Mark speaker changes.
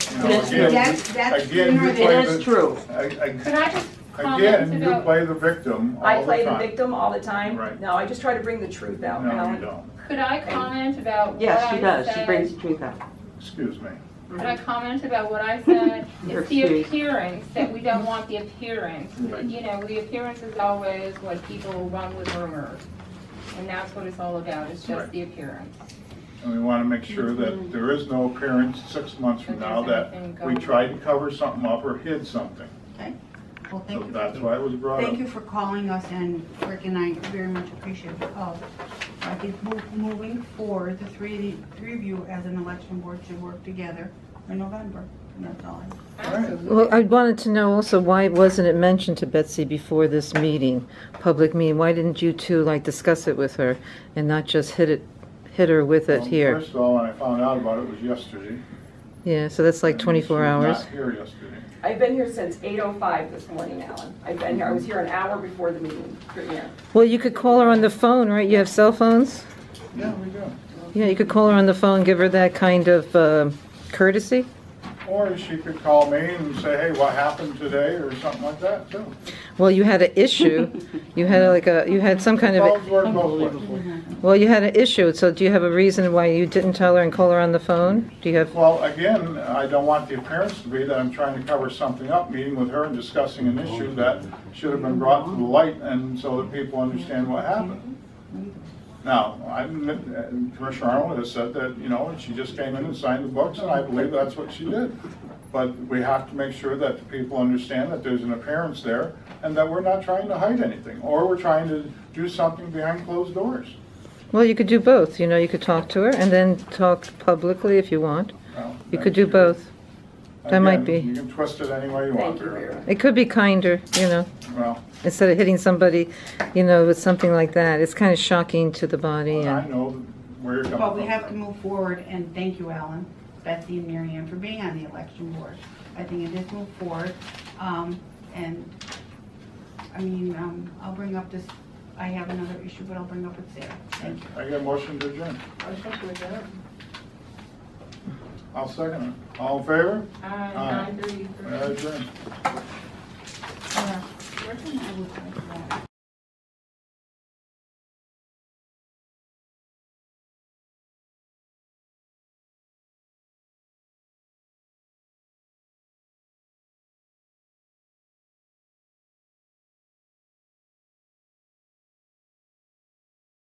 Speaker 1: That's
Speaker 2: again,
Speaker 1: true.
Speaker 3: That's, that's
Speaker 2: again,
Speaker 3: sooner
Speaker 2: you
Speaker 3: than.
Speaker 2: play
Speaker 1: It is
Speaker 2: the-
Speaker 1: true.
Speaker 2: a- a-
Speaker 4: Could I just comment
Speaker 2: Again, you
Speaker 4: about,
Speaker 2: play the victim all the time.
Speaker 5: I play the victim all the time.
Speaker 2: Right.
Speaker 5: No, I just try to bring the truth out,
Speaker 2: No, you
Speaker 5: Helen.
Speaker 2: don't.
Speaker 4: could I comment about what
Speaker 1: Yes, she
Speaker 4: I
Speaker 1: does. She brings
Speaker 4: said?
Speaker 1: the truth out.
Speaker 2: Excuse me.
Speaker 4: Could I comment about what I said?
Speaker 1: You're
Speaker 4: It's the
Speaker 1: excused.
Speaker 4: appearance, that we don't want the appearance.
Speaker 2: Right.
Speaker 4: You know, the appearance is always what people run with rumors. And that's what it's all about, it's
Speaker 2: Right.
Speaker 4: just the appearance.
Speaker 2: And we want to make sure that there is no appearance six months from
Speaker 4: That
Speaker 2: now
Speaker 4: there's
Speaker 2: that
Speaker 4: anything
Speaker 2: we
Speaker 4: going-
Speaker 2: tried to cover something up or hid something.
Speaker 3: Well,
Speaker 2: So
Speaker 3: thank you.
Speaker 2: that's why it was brought
Speaker 3: Thank
Speaker 2: up.
Speaker 3: you for calling us and Rick and I very much appreciate the call. I think mo- moving forward, the three, three of you as an election board should work together in November. And that's all. I-
Speaker 2: right.
Speaker 4: Absolutely.
Speaker 6: Well, I wanted to know also, why wasn't it mentioned to Betsy before this meeting, public meeting? Why didn't you two, like, discuss it with her and not just hit it, hit her with it
Speaker 2: Um,
Speaker 6: here?
Speaker 2: First of all, when I found out about it, it was yesterday.
Speaker 6: Yeah, so that's like
Speaker 2: And
Speaker 6: 24 hours.
Speaker 2: She was not here yesterday.
Speaker 5: I've been here since 8:05 this morning, Alan. I've been here, I was here an hour before the meeting, premiere.
Speaker 6: Well, you could call her on the phone, right? You have cell phones?
Speaker 2: Yeah, we do.
Speaker 6: Yeah, you could call her on the phone, give her that kind of um, courtesy.
Speaker 2: Or she could call me and say, hey, what happened today, or something like that, too.
Speaker 6: Well, you had an issue. You had like a, you had some kind of,
Speaker 2: Phones work both ways.
Speaker 6: well, you had an issue, so do you have a reason why you didn't tell her and call her on the phone? Do you have?
Speaker 2: Well, again, I don't want the appearance to be that I'm trying to cover something up, meeting with her and discussing an issue that should have been brought to the light and so that people understand what happened. Now, I, Commissioner Arnold has said that, you know, she just came in and signed the books and I believe that's what she did. But we have to make sure that the people understand that there's an appearance there and that we're not trying to hide anything or we're trying to do something behind closed doors.
Speaker 6: Well, you could do both, you know, you could talk to her and then talk publicly if you want.
Speaker 2: Well,
Speaker 6: You could do both. that might be.
Speaker 2: Again, You can twist it any way you want
Speaker 5: Thank you,
Speaker 2: there.
Speaker 5: Vera.
Speaker 6: It could be kinder, you know,
Speaker 2: Well,
Speaker 6: instead of hitting somebody, you know, with something like that. It's kind of shocking to the body
Speaker 2: I
Speaker 6: and,
Speaker 2: know where you're coming from.
Speaker 3: But we have to move forward and thank you, Alan, Betsy and Mary Ann for being on the election board. I think it is move forward. Um, and, I mean, um, I'll bring up this, I have another issue, but I'll bring up it there. Thank you.
Speaker 2: I get a motion to adjourn. I'll second it. All in favor?
Speaker 4: Uh,
Speaker 2: Aye.
Speaker 4: 9:33.
Speaker 2: We are adjourned.
Speaker 3: Yeah. Where can Uh, I look like that?